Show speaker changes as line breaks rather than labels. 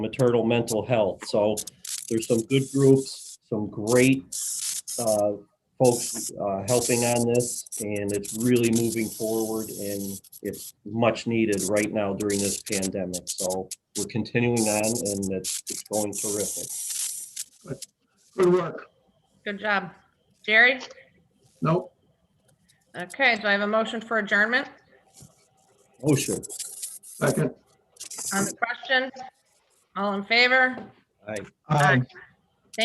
maternal mental health. So there's some good groups, some great uh, folks uh, helping on this, and it's really moving forward, and it's much needed right now during this pandemic. So we're continuing on, and it's, it's going terrific.
Good work.
Good job. Jerry?
Nope.
Okay, do I have a motion for adjournment
Oh, sure.
Second.
on the question? All in favor?
Aye.
Um,